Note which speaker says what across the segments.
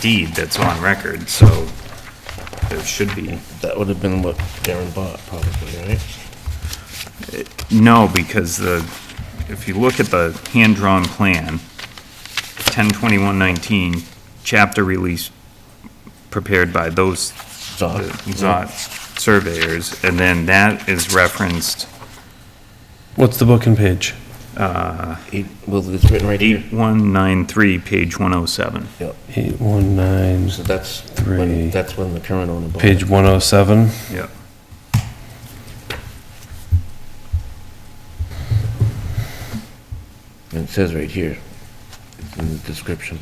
Speaker 1: deed that's on record, so there should be.
Speaker 2: That would have been what Darren bought, probably, right?
Speaker 1: No, because the, if you look at the hand-drawn plan, 102119, chapter release prepared by those
Speaker 2: Zot.
Speaker 1: Zot surveyors, and then that is referenced
Speaker 3: What's the booking page?
Speaker 2: He- Well, it's written right here.
Speaker 1: 8193, page 107.
Speaker 2: Yep.
Speaker 3: Eight one nine,
Speaker 2: So that's
Speaker 3: Three.
Speaker 2: when, that's when the current owner bought it.
Speaker 3: page one oh seven.
Speaker 1: Yep.
Speaker 2: And it says right here, it's in the description.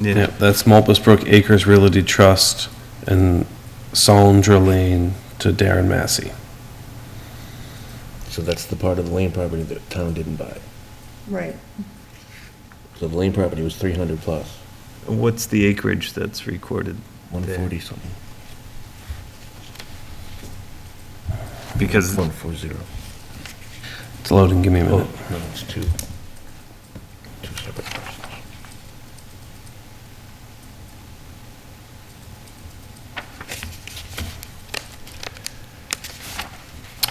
Speaker 3: Yep, that's Mulpus Brook Acres Realty Trust and Sandra Lane to Darren Massey.
Speaker 2: So that's the part of the land property that the town didn't buy.
Speaker 4: Right.
Speaker 2: So the land property was 300 plus,
Speaker 1: What's the acreage that's recorded?
Speaker 2: 140 something,
Speaker 1: Because
Speaker 2: 140.
Speaker 3: It's loading, give me a minute.
Speaker 2: Oh, no, it's two, two separate parcels.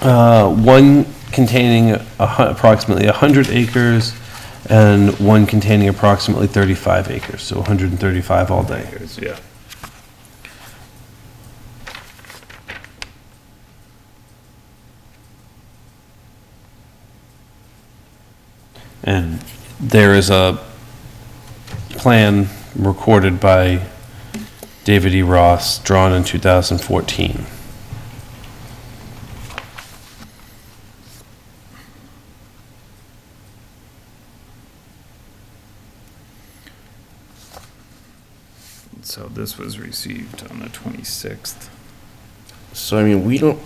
Speaker 3: Uh, one containing a hu- approximately hundred acres and one containing approximately thirty-five acres, so hundred and thirty-five all day.
Speaker 1: Yeah.
Speaker 3: And there is a plan recorded by David E. Ross, drawn in 2014.
Speaker 1: So this was received on the 26th.
Speaker 2: So I mean, we don't,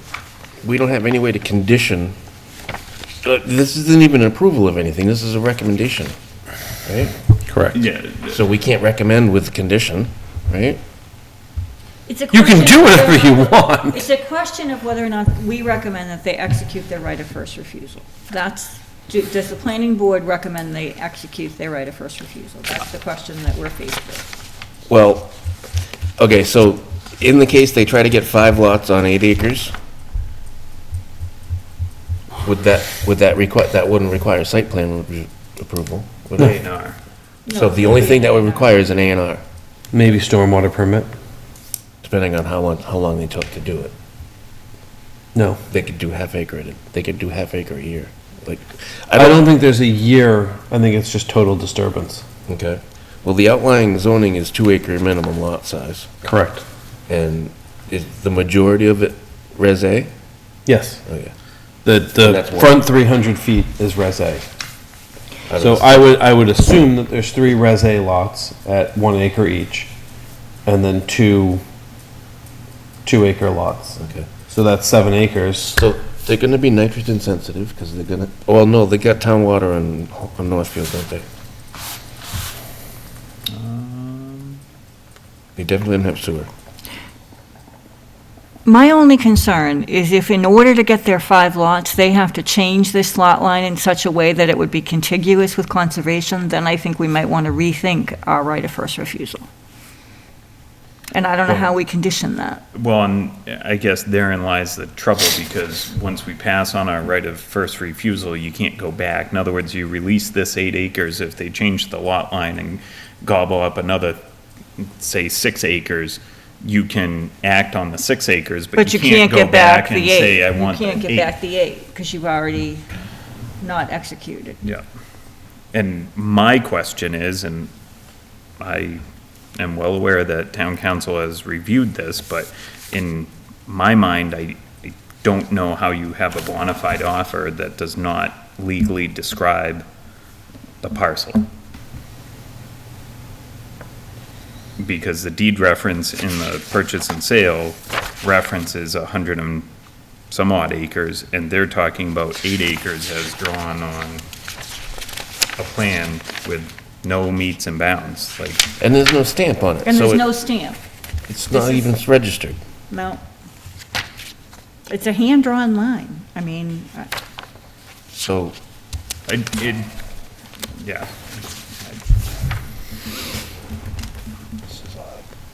Speaker 2: we don't have any way to condition, uh, this isn't even an approval of anything, this is a recommendation, right?
Speaker 3: Correct.
Speaker 1: Yeah.
Speaker 2: So we can't recommend with condition, right?
Speaker 4: It's a
Speaker 3: You can
Speaker 4: question
Speaker 3: do
Speaker 4: of
Speaker 3: whatever
Speaker 4: whether-
Speaker 3: you want.
Speaker 4: It's a question of whether or not we recommend that they execute their right of first refusal. That's, do- does the planning board recommend they execute their right of first refusal? That's the question that we're faced with.
Speaker 2: Well, okay, so in the case they try to get five lots on eight acres, would that, would that require, that wouldn't require site plan re- approval, would
Speaker 1: A
Speaker 2: it?
Speaker 1: and R.
Speaker 2: So the only thing that would require is an A and R,
Speaker 3: Maybe stormwater permit?
Speaker 2: depending on how much, how long they took to do it.
Speaker 3: No.
Speaker 2: They could do half acre, at a- they could do half acre a year, like,
Speaker 3: I don't think there's a year, I think it's just total disturbance.
Speaker 2: Oh, Okay. Well, the outlying zoning is two acre minimum lot size,
Speaker 3: Correct.
Speaker 2: and is the majority of it Res A?
Speaker 3: Yes.
Speaker 2: Okay.
Speaker 3: The, the
Speaker 2: That's one.
Speaker 3: front 300 feet is Res A.
Speaker 2: I
Speaker 3: So
Speaker 2: don't-
Speaker 3: I would, I would assume that there's three Res A lots at one acre each, and then two, two acre lots.
Speaker 2: Okay.
Speaker 3: So that's seven acres.
Speaker 2: So they're gonna be nitrogen sensitive, because they're gonna, well, no, they got town water on, on Northfield, don't they?
Speaker 3: Um.
Speaker 2: They definitely don't have sewer.
Speaker 4: My only concern is if in order to get their five lots, they have to change this lot line in such a way that it would be contiguous with conservation, then I think we might want to rethink our right of first refusal. And I don't know how we condition that.
Speaker 1: Well, and I guess therein lies the trouble, because once we pass on our right of first refusal, you can't go back. In other words, you release this eight acres, if they change the lot line and gobble up another, say, six acres, you can act on the six acres,
Speaker 4: But you can't
Speaker 1: go
Speaker 4: get back
Speaker 1: back and
Speaker 4: the
Speaker 1: say, I
Speaker 4: eight. You
Speaker 1: want the eight.
Speaker 4: can't get back the eight, because you've already not executed.
Speaker 1: Yeah. And my question is, and I am well aware that town council has reviewed this, but in my mind, I I don't know how you have a bona fide offer that does not legally describe the parcel. Because the deed reference in the purchase and sale references a hundred and some odd acres, and they're talking about eight acres as drawn on a plan with no meets and bounds, like,
Speaker 2: And there's no stamp on it.
Speaker 4: And
Speaker 2: so
Speaker 4: there's
Speaker 2: it-
Speaker 4: no stamp,
Speaker 2: It's not even registered.
Speaker 4: no. It's a hand-drawn line. I mean, I-
Speaker 2: So
Speaker 1: I, it, yeah.